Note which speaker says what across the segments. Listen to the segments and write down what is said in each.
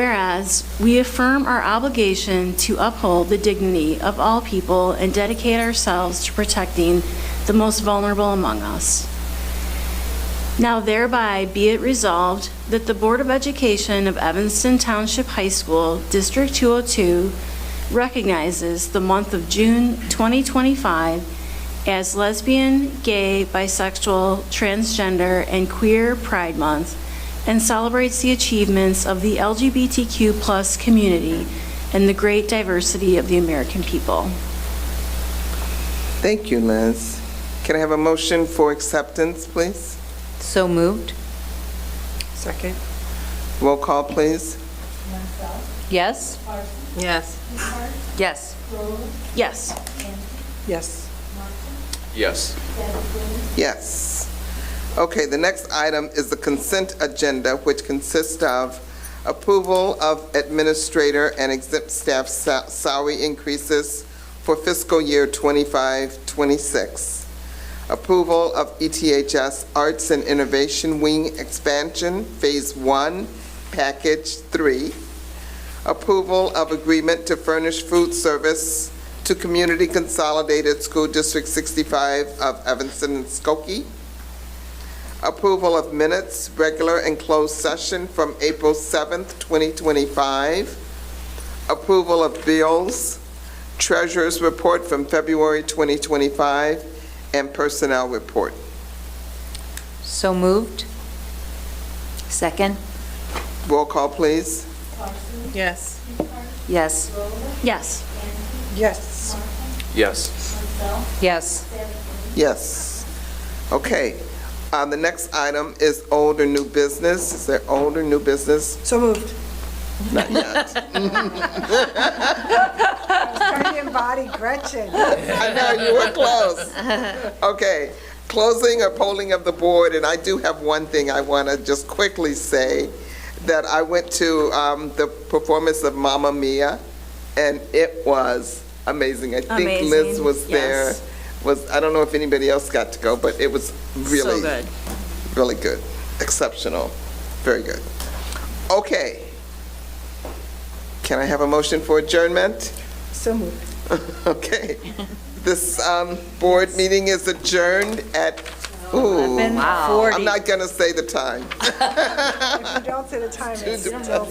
Speaker 1: Whereas, we affirm our obligation to uphold the dignity of all people and dedicate ourselves to protecting the most vulnerable among us. Now thereby be it resolved that the Board of Education of Evanston Township High School, District 202, recognizes the month of June 2025 as Lesbian, Gay, Bisexual, Transgender, and Queer Pride Month and celebrates the achievements of the LGBTQ+ community and the great diversity of the American people.
Speaker 2: Thank you, Liz. Can I have a motion for acceptance, please?
Speaker 3: So moved.
Speaker 4: Second?
Speaker 2: Roll call, please.
Speaker 3: Yes?
Speaker 4: Yes.
Speaker 3: Yes.
Speaker 1: Yes.
Speaker 4: Yes.
Speaker 5: Yes.
Speaker 2: Yes. Okay, the next item is the consent agenda, which consists of approval of administrator and exempt staff sa- salary increases for fiscal year 25, 26, approval of E ETHS Arts and Innovation Wing expansion, Phase 1, Package 3, approval of agreement to furnish food service to Community Consolidated School District 65 of Evanston and Skokie. Approval of minutes, regular and closed session from April 7th, 2025. Approval of bills, treasurer's report from February 2025, and personnel report.
Speaker 3: So moved. Second?
Speaker 2: Roll call, please.
Speaker 4: Yes.
Speaker 3: Yes.
Speaker 1: Yes.
Speaker 4: Yes.
Speaker 5: Yes.
Speaker 3: Yes.
Speaker 2: Yes. Okay. Uh, The next item is old or new business. Is there old or new business?
Speaker 4: So moved.
Speaker 2: Not yet.
Speaker 4: Trying to embody Gretchen.
Speaker 2: I know, you were close. Okay, closing or polling of the board, and I do have one thing I want to just quickly say, that I went to um, the performance of Mamma Mia, and it was amazing. I think Liz
Speaker 1: Amazing,
Speaker 2: was there.
Speaker 1: yes.
Speaker 2: Was, I don't know if anybody else got to go, but it was really.
Speaker 1: So good.
Speaker 2: Really good, exceptional, very good. Okay. Can I have a motion for adjournment?
Speaker 4: So moved.
Speaker 2: Okay. This um, board meeting is adjourned at, ooh, I'm not going to say the time.
Speaker 4: If you don't say the time, it's still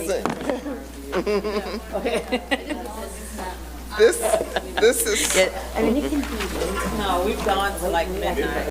Speaker 4: me.
Speaker 2: This, this is
Speaker 6: No, we've gone to like midnight.